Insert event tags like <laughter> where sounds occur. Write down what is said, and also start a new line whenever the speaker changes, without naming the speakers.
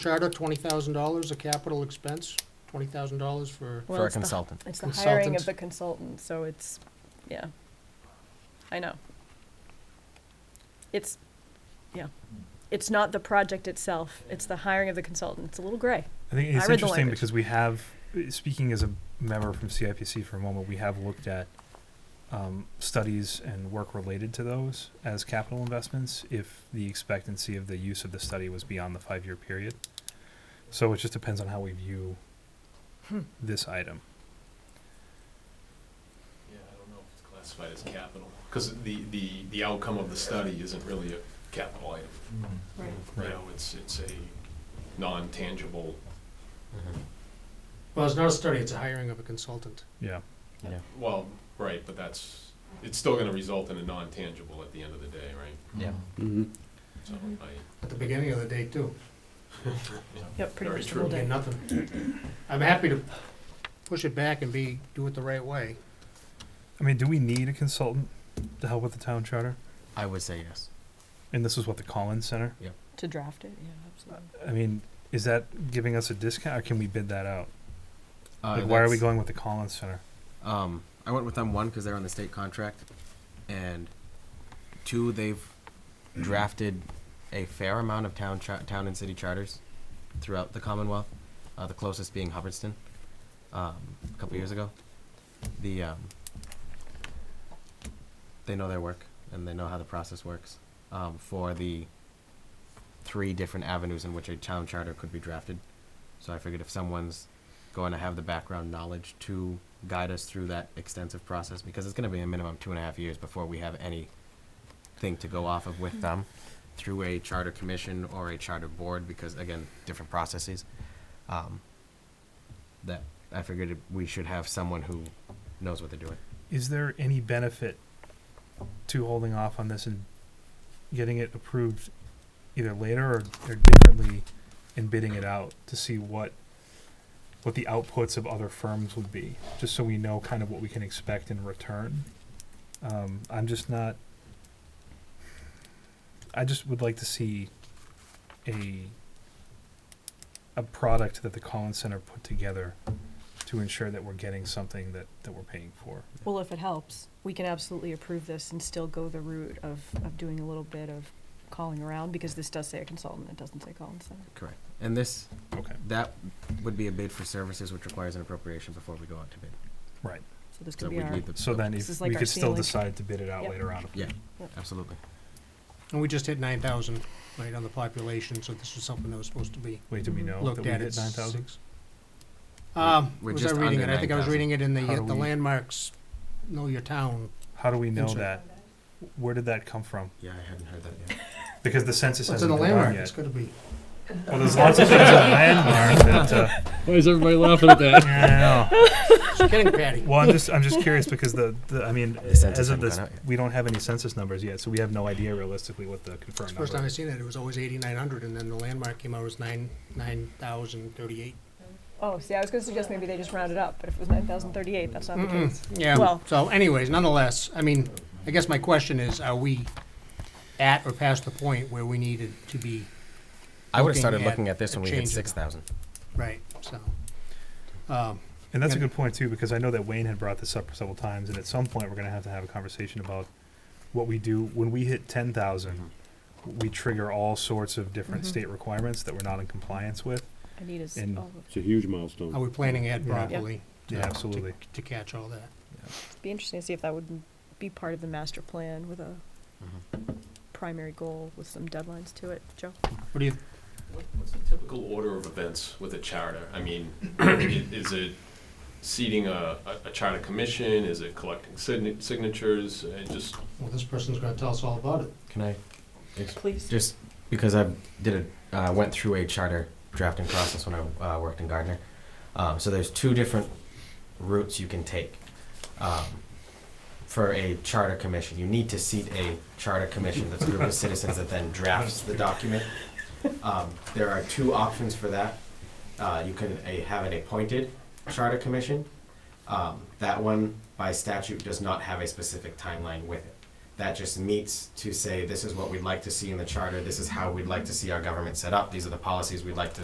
charter, twenty thousand dollars, a capital expense, twenty thousand dollars for,
Well,
for a
it's the hi-
consultant.
It's the hiring
Consultant.
of the consultant, so it's, yeah. I know. It's, yeah. It's not the project itself, it's the hiring of the consultant. It's a little gray.
I
I
think
read
it's
the
interesting
language.
because we have, speaking as a member from CIPC for a moment, we have looked at um, studies and work related to those as capital investments if the expectancy of the use of the study was beyond the five-year period. So it just depends on how we view
Hmm.
this item.
Yeah, I don't know if it's classified as capital, because the, the, the outcome of the study isn't really a capital item.
Mm-hmm.
Right.
You know, it's, it's a non-tangible,
Mm-hmm.
well, it's not a study, it's a hiring of a consultant.
Yeah.
Yeah.
well, right, but that's, it's still gonna result in a non-tangible at the end of the day, right?
Yeah.
So
Mm-hmm.
I,
At the beginning of the day too,
Yep, pretty
Very
much the
true.
whole
we
day.
get nothing. I'm happy to push it back and be, do it the right way.
I mean, do we need a consultant to help with the town charter?
I would say yes.
And this is what the Collins Center?
To draft it, yeah, absolutely.
I mean, is that giving us a discount or can we bid that out?
Uh,
Like, why are we
that's-
going with the Collins Center?
Um, I went with them one because they're on the state contract, and two, they've drafted a fair amount of town cha- town and city charters throughout the Commonwealth. Uh, the closest being Hubbardston, um, a couple years ago. The um, they know their work and they know how the process works um, for the three different avenues in which a town charter could be drafted. So I figured if someone's going to have the background knowledge to guide us through that extensive process, because it's going to be a minimum two and a half years before we have any thing to go off of with them through a charter commission or a charter board, because again, different processes. Um, that I figured we should have someone who knows what they're doing.
Is there any benefit to holding off on this and getting it approved either later or, or differently and bidding it out to see what, what the outputs of other firms would be, just so we know kind of what we can expect in return? Um, I'm just not, I just would like to see a, a product that the Collins Center put together to ensure that we're getting something that, that we're paying for.
Well, if it helps, we can absolutely approve this and still go the route of, of doing a little bit of calling around, because this does say a consultant, it doesn't say Collins Center.
Correct. And this,
Okay.
that would be a bid for services which requires an appropriation before we go out to bid.
So this
So
could be
we
our,
need the.
So then
This is
if
like
we
our
could still
ceiling.
decide to bid it out
Yep.
later on. if we-
Yeah. Absolutely.
And we just hit nine thousand, right, on the population, so this was something that was supposed to be
Wait, do we
Mhm.
know that
looked
we
at at
hit nine thousand?
six. Um,
We're
was I
just
reading it?
under
I think I was
9,000.
reading it in the,
How do
uh, the
we-
landmarks, know your town.
How do we know
Insert.
that? Where did that come from?
Yeah, I hadn't heard that yet.
Because the
It's
census
in
hasn't
the
been done
landmark, it's
yet.
gotta be.
Well, there's lots of things in landmark that, uh,
<laughs>
Why is everybody laughing at that?
yeah, I know.
Just kidding, <laughs> Patty.
Well, I'm just, I'm just curious because the, the, I mean,
census
as
hasn't
of this,
gone out yet.
we don't have any census numbers yet, so we have no idea realistically what the confirmed
First time
number
I
is.
seen it, it was always eighty-nine hundred, and then the landmark came out as nine, nine thousand thirty-eight.
oh, see, I was gonna suggest maybe they just round it up, but if it was nine thousand thirty-eight, that's not the
Mm-mm.
case.
Yeah,
Well-
so anyways, nonetheless, I mean, I guess my question is, are we at or past the point where we needed to be,
I would have
Looking
started
at
looking at this
a
when we hit
change in-
six thousand.
right, so. um,
And that's a
Yeah.
good point too, because I know that Wayne had brought this up several times, and at some point, we're gonna have to have a conversation about what we do when we hit ten thousand. We trigger all sorts of different
Mhm.
state requirements that we're not in compliance with.
Anita's,
And-
oh,
<laughs> It's a huge
Are
milestone.
we planning ahead
Yeah.
properly? to-
Yeah, absolutely.
to- To catch all that.
it'd be interesting to see if that would be part of the master plan with a primary goal with some deadlines to it, Joe?
What do you,
what- what's the typical order of events with a charter? I mean, <clears throat> i- is it seating a, a- a charter commission? Is it collecting signa- signatures? And just,
well, this person's gonna tell us all about it.
Can I,
Please.
just because I did a, uh, went through a charter drafting process when I uh, worked in Gardner. Um, so there's two different routes you can take. Um, for a charter commission, you need to seat a charter commission that's a group of citizens that then drafts the document. Um, there are two options for that. Uh, you can a, have an appointed charter commission. Um, that one, by statute, does not have a specific timeline with it. That just meets to say, this is what we'd like to see in the charter, this is how we'd like to see our government set up, these are the policies we'd like to